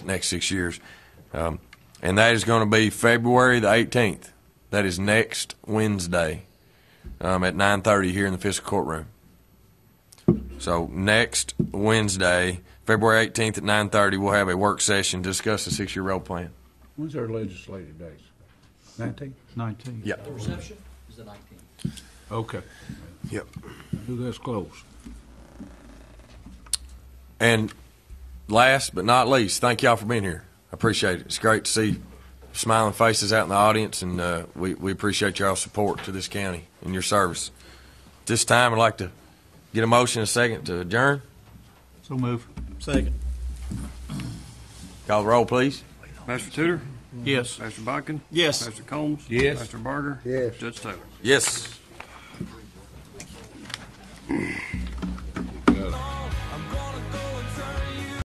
next six years. Um, and that is going to be February the 18th. That is next Wednesday um, at 9:30 here in the fiscal courtroom. So next Wednesday, February 18th at 9:30, we'll have a work session to discuss the six-year road plan. When's our legislative days? Nineteenth? 19. Yeah. The reception is the nineteenth. Okay. Yep. Do this close. And last but not least, thank y'all for being here. I appreciate it. It's great to see smiling faces out in the audience, and uh, we, we appreciate y'all's support to this county and your service. At this time, I'd like to get a motion and a second to adjourn. So move. Second. Call the roll, please. Master Tudor, Yes. Master Bodkin, Yes. Master Combs, Yes. Master Barger, Yes. Judge Taylor. Yes.